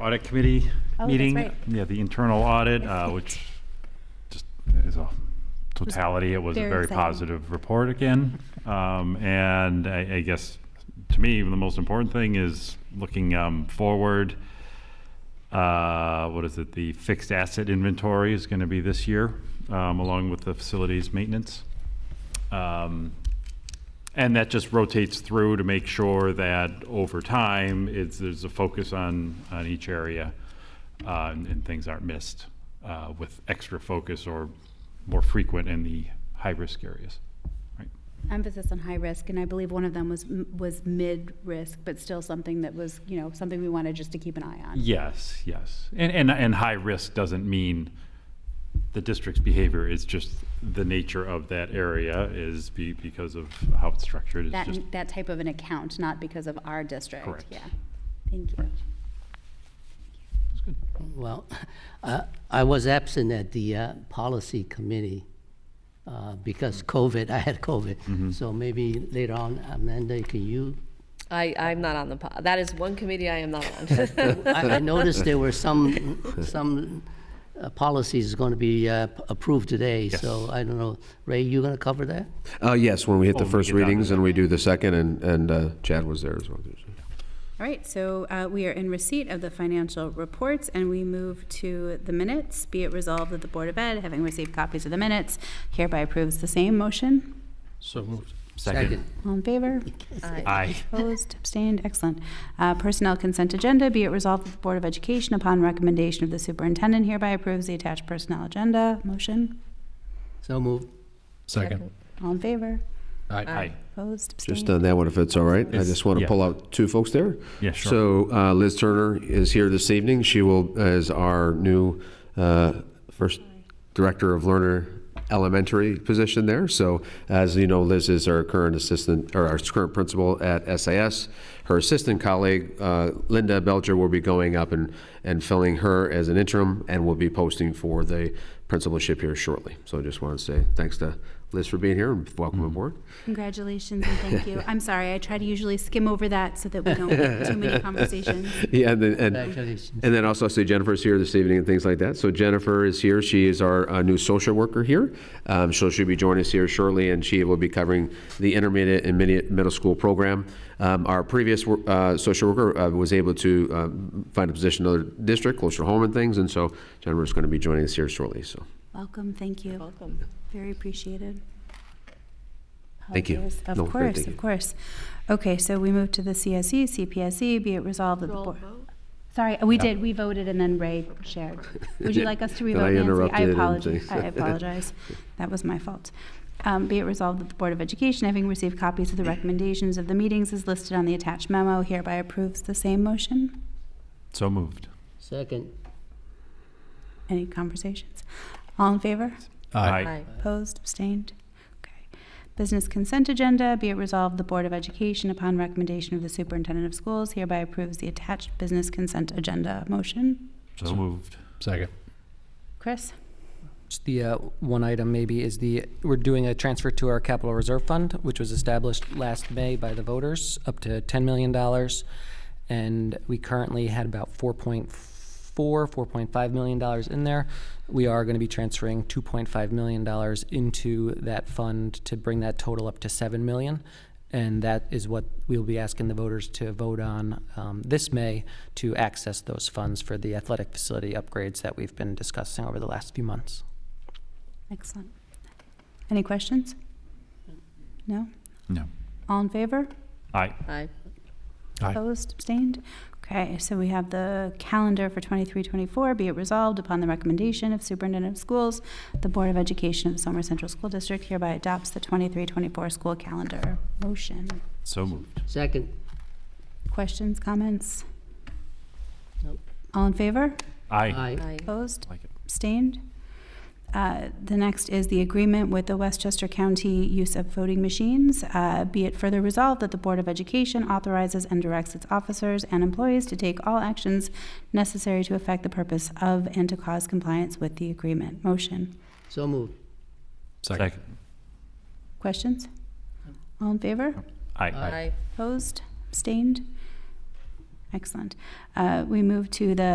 audit committee Oh, that's meeting. right. Yeah, the internal audit, uh, which just is a totality. It was a very very exciting. positive report again. Um, and I, I guess to me, the most important thing is looking um, forward. Uh, what is it? The fixed asset inventory is going to be this year, um, along with the facilities maintenance. Um, and that just rotates through to make sure that over time, it's, there's a focus on, on each area, uh, and, and things aren't missed, uh, with extra focus or more frequent in the high-risk areas. Right. emphasis on high risk, and I believe one of them was, was mid-risk, but still something that was, you know, something we wanted just to keep an eye on. Yes, yes. And, and, and high risk doesn't mean the district's behavior, it's just the nature of that area is be, because of how it's structured, it's That, just, that type of an account, not because of our district. Correct. Yeah, thank you. it's good. Well, uh, I was absent at the uh, policy committee uh, because COVID, I had Mm-hmm. COVID. So maybe later on, Amanda, can you? I, I'm not on the, po- that is one committee I am not on. I I noticed there were some, some uh, policies going to be uh, approved today. So I don't know, Ray, you going to cover that? Uh, yes, when we hit Oh, the we first get down to readings and we do the second, and, and uh, Chad was there as well. All right, so uh, we are in receipt of the financial reports, and we move to the minutes. Be it resolved that the Board of Ed, having received copies of the minutes, hereby approves the same motion. So moved. Second. All in favor? Aye. Opposed, abstained, excellent. Uh, Personnel consent agenda, be it resolved that the Board of Education, upon recommendation of the superintendent, hereby approves the attached personnel agenda. Motion, So moved. Second. all in favor? Aye. Opposed, Just abstained? on that one, if it's all right, I uh, It's- just want yeah. to pull out two folks there. Yeah, sure. So uh, Liz Turner is here this evening. She will, as our new uh, first director of learner elementary position there. So as you know, Liz is our current assistant, or our current principal at SAS. Her assistant colleague, uh, Linda Belcher, will be going up and, and filling her as an interim and will be posting for the principalship here shortly. So I just want to say thanks to Liz for being here and welcome Mm-hmm. aboard. Congratulations and thank you. I'm sorry, I try to usually skim over that so that we don't get too many conversations. Yeah, and then, and, Congratulations. and then also, say Jennifer's here this evening and things like that. So Jennifer is here. She is our uh, new social worker here. Um, so she'll be joining us here shortly, and she will be covering the intermediate and mini- middle school program. Um, our previous wor- uh, social worker uh, was able to um, find a position in another district, closer to home and things, and so Jennifer's going to be joining us here shortly. So Welcome, thank you. Welcome. Very appreciated. Thank you. Apologies. No, Of great, course, thank of you. course. Okay, so we move to the E, CSE, CPSE, be it resolved that the board. Sorry, we did, we voted and then Ray shared. Would you like us to Then I revote, Nancy? I interrupted and apologize, things. I apologize. That was my fault. Um, Be it resolved that the Board of Education, having received copies of the recommendations of the meetings as listed on the attached memo, hereby approves the same motion. So moved. Second. Any conversations? All in favor? Aye. Opposed, abstained? Okay. Business consent agenda, be it resolved, the Board of Education, upon recommendation of the Superintendent of Schools, hereby approves the attached business consent agenda. Motion? So moved. Second. Chris? Just the uh, one item maybe is the, we're doing a transfer to our capital reserve fund, which was established last May by the voters, up to $10 million. And we currently had about 4.4, 4.5 million dollars in there. We are going to be transferring 2.5 million dollars into that fund to bring that total up to 7 million. And that is what we'll be asking the voters to vote on um, this May to access those funds for the athletic facility upgrades that we've been discussing over the last few months. Excellent. Any questions? No? No. All in favor? Aye. Aye. Aye. Opposed, abstained? Okay, so we have the calendar for 23-24. Be it resolved upon the recommendation of Superintendent of Schools, the Board of Education of the Somer Central School District hereby adopts the 23-24 school calendar. Motion. So moved. Second. Questions, comments? Nope. All in favor? Aye. Aye. Aye. Opposed? Like it. Abstained? Uh, The next is the agreement with the Westchester County use of voting machines. Uh, Be it further resolved that the Board of Education authorizes and directs its officers and employees to take all actions necessary to affect the purpose of and to cause compliance with the agreement. Motion. So moved. Second. Questions? All in favor? Aye. Aye. Opposed? Abstained? Excellent. Uh, We move to the